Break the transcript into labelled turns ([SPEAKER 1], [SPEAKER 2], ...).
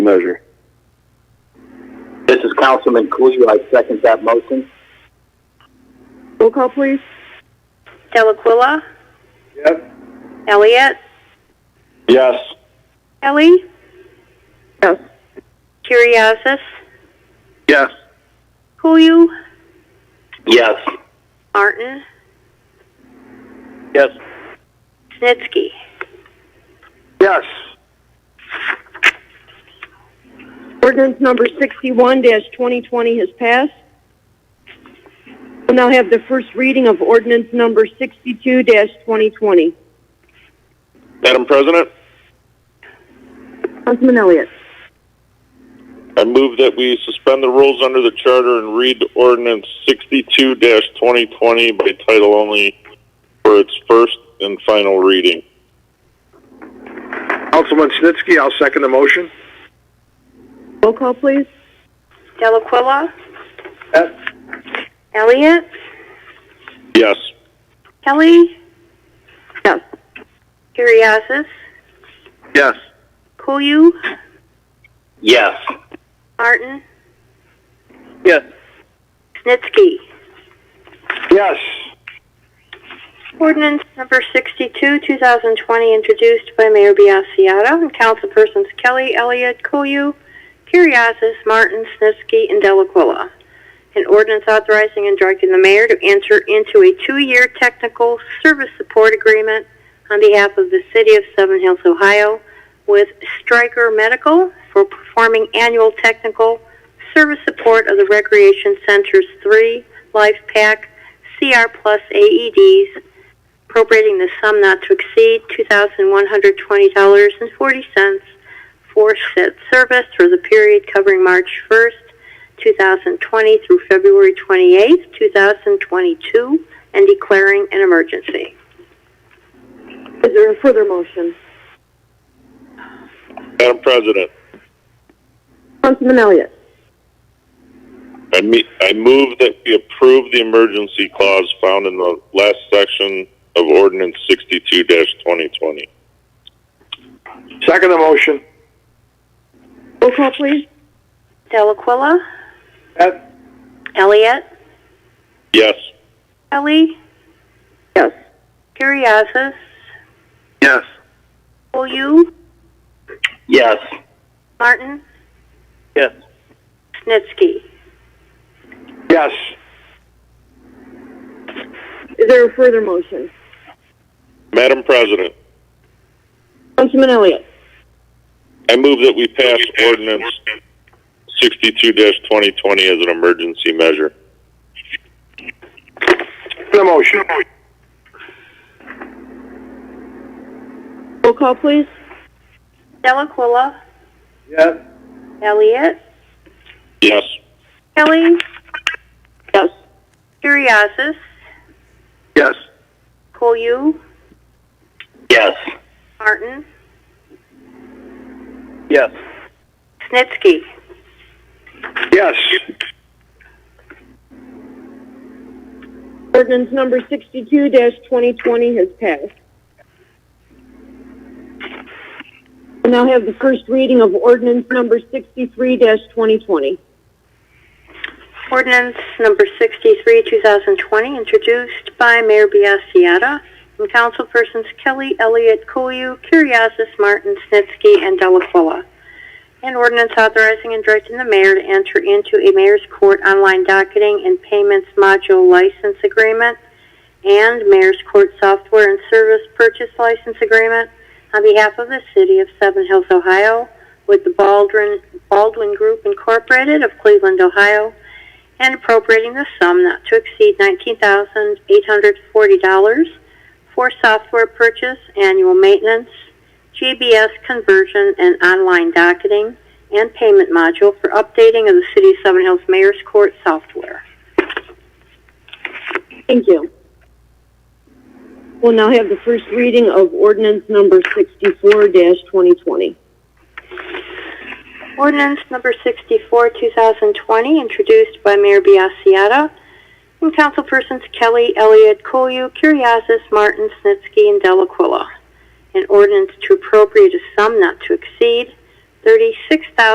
[SPEAKER 1] measure.
[SPEAKER 2] This is Councilman Khalil. I second that motion.
[SPEAKER 3] Roll call, please.
[SPEAKER 4] Delaquilla,
[SPEAKER 1] Yes.
[SPEAKER 4] Elliott,
[SPEAKER 2] Yes.
[SPEAKER 4] Kelly,
[SPEAKER 3] Yes.
[SPEAKER 4] Curriasis,
[SPEAKER 1] Yes.
[SPEAKER 4] Kuyu,
[SPEAKER 2] Yes.
[SPEAKER 4] Martin,
[SPEAKER 2] Yes.
[SPEAKER 4] Snitsky.
[SPEAKER 1] Yes.
[SPEAKER 3] Ordinance number 61-2020 has passed. We'll now have the first reading of ordinance number 62-2020.
[SPEAKER 5] Madam President,
[SPEAKER 3] Councilman Elliott.
[SPEAKER 5] I move that we suspend the rules under the charter and read ordinance 62-2020 by title only for its first and final reading.
[SPEAKER 1] Councilman Snitsky, I'll second the motion.
[SPEAKER 3] Roll call, please.
[SPEAKER 4] Delaquilla,
[SPEAKER 1] Yes.
[SPEAKER 4] Elliott,
[SPEAKER 5] Yes.
[SPEAKER 4] Kelly,
[SPEAKER 3] Yes.
[SPEAKER 4] Curriasis,
[SPEAKER 1] Yes.
[SPEAKER 4] Kuyu,
[SPEAKER 2] Yes.
[SPEAKER 4] Martin,
[SPEAKER 1] Yes.
[SPEAKER 4] Snitsky.
[SPEAKER 1] Yes.
[SPEAKER 4] Ordinance number 62, 2020, introduced by Mayor Biassiata and councilpersons Kelly, Elliott, Koyu, Curriasis, Martin, Snitsky, and Delaquilla. An ordinance authorizing and directing the mayor to enter into a two-year technical service support agreement on behalf of the city of Seven Hills, Ohio, with Stryker Medical for performing annual technical service support of the Recreation Center's three Life Pack CR Plus E AEDs appropriating the sum not to exceed $2,120.40 for said service for the period covering March 1st, 2020 through February 28th, 2022, and declaring an emergency.
[SPEAKER 3] Is there a further motion?
[SPEAKER 5] Madam President,
[SPEAKER 3] Councilman Elliott.
[SPEAKER 5] I, me- I move that we approve the emergency clause found in the last section of ordinance 62-2020.
[SPEAKER 1] Second the motion.
[SPEAKER 3] Roll call, please.
[SPEAKER 4] Delaquilla,
[SPEAKER 1] Yes.
[SPEAKER 4] Elliott,
[SPEAKER 5] Yes.
[SPEAKER 4] Kelly,
[SPEAKER 3] Yes.
[SPEAKER 4] Curriasis,
[SPEAKER 1] Yes.
[SPEAKER 4] OU,
[SPEAKER 2] Yes.
[SPEAKER 4] Martin,
[SPEAKER 1] Yes.
[SPEAKER 4] Snitsky.
[SPEAKER 1] Yes.
[SPEAKER 3] Is there a further motion?
[SPEAKER 5] Madam President,
[SPEAKER 3] Councilman Elliott.
[SPEAKER 5] I move that we pass ordinance 62-2020 as an emergency measure.
[SPEAKER 1] Second the motion.
[SPEAKER 3] Roll call, please.
[SPEAKER 4] Delaquilla,
[SPEAKER 1] Yes.
[SPEAKER 4] Elliott,
[SPEAKER 5] Yes.
[SPEAKER 4] Kelly,
[SPEAKER 3] Yes.
[SPEAKER 4] Curriasis,
[SPEAKER 1] Yes.
[SPEAKER 4] Koyu,
[SPEAKER 2] Yes.
[SPEAKER 4] Martin,
[SPEAKER 1] Yes.
[SPEAKER 4] Snitsky.
[SPEAKER 1] Yes.
[SPEAKER 3] Ordinance number 62-2020 has passed. We now have the first reading of ordinance number 63-2020.
[SPEAKER 4] Ordinance number 63, 2020, introduced by Mayor Biassiata and councilpersons Kelly, Elliott, Koyu, Curriasis, Martin, Snitsky, and Delafola. An ordinance authorizing and directing the mayor to enter into a mayor's court online docketing and payments module license agreement and mayor's court software and service purchase license agreement on behalf of the city of Seven Hills, Ohio, with the Baldwin, Baldwin Group Incorporated of Cleveland, Ohio, and appropriating the sum not to exceed $19,840 for software purchase, annual maintenance, GBS conversion, and online docketing and payment module for updating of the City of Seven Hills Mayor's Court software.
[SPEAKER 3] Thank you. We'll now have the first reading of ordinance number 64-2020.
[SPEAKER 4] Ordinance number 64, 2020, introduced by Mayor Biassiata and councilpersons Kelly, Elliott, Koyu, Curriasis, Martin, Snitsky, and Delaquilla. An ordinance to appropriate a sum not to exceed 36000